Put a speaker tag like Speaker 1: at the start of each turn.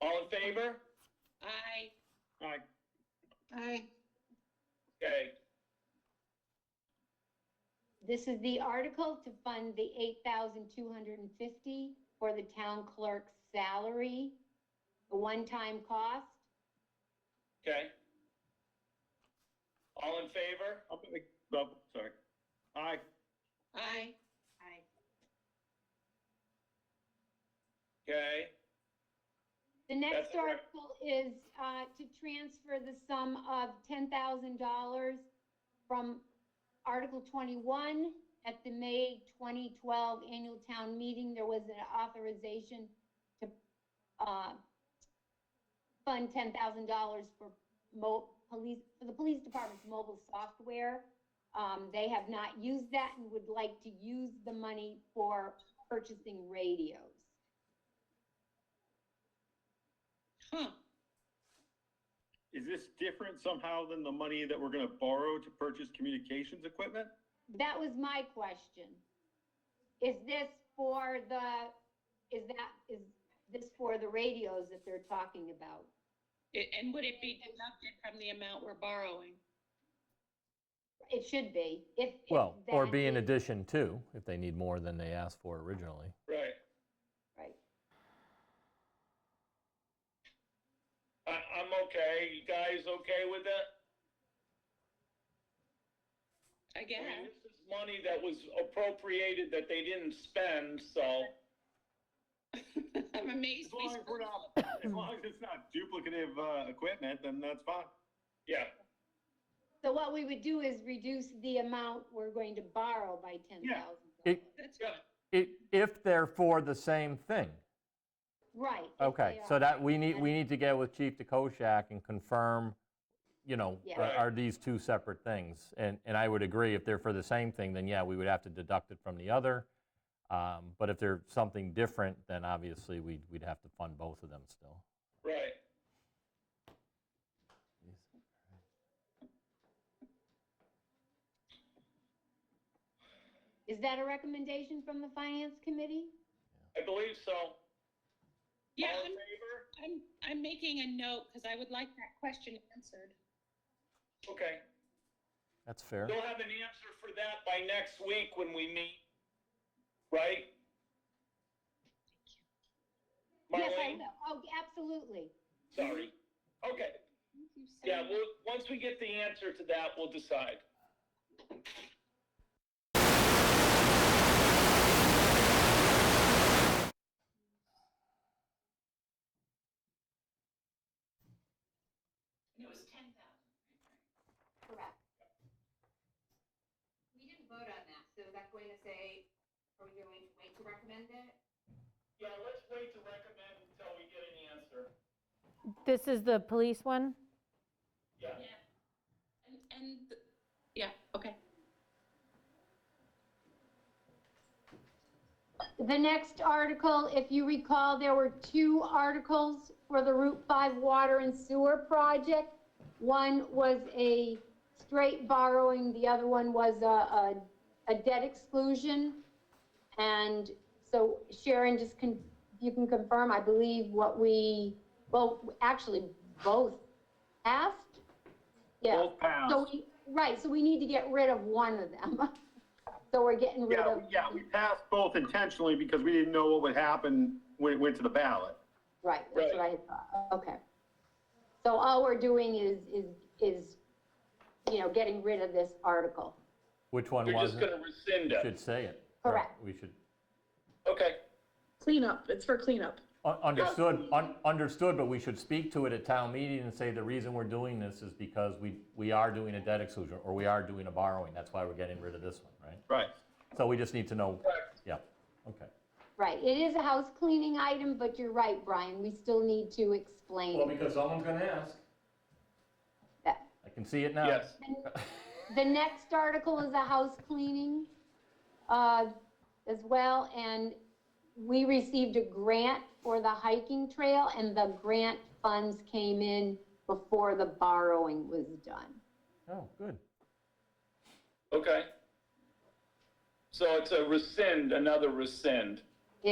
Speaker 1: All in favor?
Speaker 2: Aye.
Speaker 1: Aye.
Speaker 2: Aye.
Speaker 1: Okay,
Speaker 3: This is the article to fund the eight thousand two hundred and fifty for the town clerk's salary, a one-time cost.
Speaker 1: okay. All in favor?
Speaker 4: I'll make, oh, sorry. Aye,
Speaker 2: Aye.
Speaker 3: Aye.
Speaker 1: Okay,
Speaker 3: The next
Speaker 1: That's all right.
Speaker 3: article is, uh, to transfer the sum of ten thousand dollars from Article twenty-one. At the May twenty twelve annual town meeting, there was an authorization to, uh, fund ten thousand dollars for mo, police, for the police department's mobile software. Um, they have not used that and would like to use the money for purchasing radios.
Speaker 2: Huh.
Speaker 4: is this different somehow than the money that we're gonna borrow to purchase communications equipment?
Speaker 3: That was my question. Is this for the, is that, is this for the radios that they're talking about?
Speaker 2: I- And would it be deducted from the amount we're borrowing?
Speaker 3: It should be, if. if
Speaker 5: Well, or
Speaker 3: that
Speaker 5: be in
Speaker 3: is-
Speaker 5: addition to, if they need more than they asked for originally.
Speaker 1: right.
Speaker 3: Right.
Speaker 1: I, I'm okay. You guys okay with that?
Speaker 2: I
Speaker 1: I
Speaker 2: guess.
Speaker 1: mean, This is money that was appropriated that they didn't spend, so,
Speaker 2: I'm amazed.
Speaker 4: As
Speaker 2: we
Speaker 4: long as we're
Speaker 2: still-
Speaker 4: not, as long as it's not duplicative, uh, equipment, then that's fine.
Speaker 1: yeah.
Speaker 3: So what we would do is reduce the amount we're going to borrow by ten thousand.
Speaker 5: It-
Speaker 2: That's
Speaker 1: Yeah.
Speaker 2: fine.
Speaker 5: I- If they're for the same thing.
Speaker 3: Right. if
Speaker 5: Okay,
Speaker 3: they
Speaker 5: so
Speaker 3: are.
Speaker 5: that, we need,
Speaker 3: And-
Speaker 5: we need to get with Chief DeKoschak and confirm, you know,
Speaker 3: Yeah.
Speaker 5: are-
Speaker 1: Right.
Speaker 5: are these two separate things? And, and I would agree, if they're for the same thing, then yeah, we would have to deduct it from the other. Um, But if they're something different, then obviously we'd, we'd have to fund both of them still.
Speaker 1: Right.
Speaker 3: Is that a recommendation from the finance committee?
Speaker 1: I believe so.
Speaker 2: Yeah,
Speaker 1: All in
Speaker 2: I'm,
Speaker 1: favor?
Speaker 2: I'm, I'm making a note because I would like that question answered.
Speaker 1: Okay.
Speaker 5: That's fair.
Speaker 1: You'll have an answer for that by next week when we meet, right?
Speaker 3: Yes, I
Speaker 1: Marlene,
Speaker 3: will. Oh, absolutely.
Speaker 1: sorry. Okay,
Speaker 2: Thank you so
Speaker 1: yeah,
Speaker 2: much.
Speaker 1: we'll, once we get the answer to that, we'll decide.
Speaker 3: It was ten thousand. Correct.
Speaker 6: We didn't vote on that, so is that going to say, are we going to wait to recommend it?
Speaker 1: Yeah, let's wait to recommend until we get an answer.
Speaker 7: This is the police one?
Speaker 1: Yeah.
Speaker 2: And, and, th- yeah, okay.
Speaker 3: The next article, if you recall, there were two articles for the Route 5 Water and Sewer Project. One was a straight borrowing, the other one was a, a, a debt exclusion. And so Sharon, just can, you can confirm, I believe what we, well, actually both passed? Yeah.
Speaker 4: Both passed.
Speaker 3: So we, right, so we need to get rid of one of them. So we're getting rid
Speaker 4: Yeah,
Speaker 3: of.
Speaker 4: we- yeah, we passed both intentionally because we didn't know what would happen when it went to the ballot.
Speaker 3: Right, that's what I had thought, okay. So all we're doing is, is, is, you know, getting rid of this article.
Speaker 5: Which one
Speaker 1: You're
Speaker 5: was
Speaker 1: just
Speaker 5: it?
Speaker 1: gonna rescind
Speaker 5: Should
Speaker 1: it.
Speaker 5: say it.
Speaker 3: Correct.
Speaker 5: We should,
Speaker 1: Okay,
Speaker 8: Cleanup, it's for cleanup.
Speaker 5: Un- Understood, un- understood, but we should speak to it at town meeting and say the reason we're doing this is because we, we are doing a debt exclusion, or we are doing a borrowing, that's why we're getting rid of this one, right?
Speaker 4: Right.
Speaker 5: So we just need to know,
Speaker 1: Correct.
Speaker 5: yeah, okay.
Speaker 3: Right, it is a house cleaning item, but you're right, Brian, we still need to explain
Speaker 5: because someone's gonna ask.
Speaker 3: that.
Speaker 5: I can see it now.
Speaker 1: yes,
Speaker 3: The next article is a house cleaning, uh, as well, and we received a grant for the hiking trail, and the grant funds came in before the borrowing was done.
Speaker 5: Oh, good.
Speaker 1: okay. So it's a rescind, another rescind.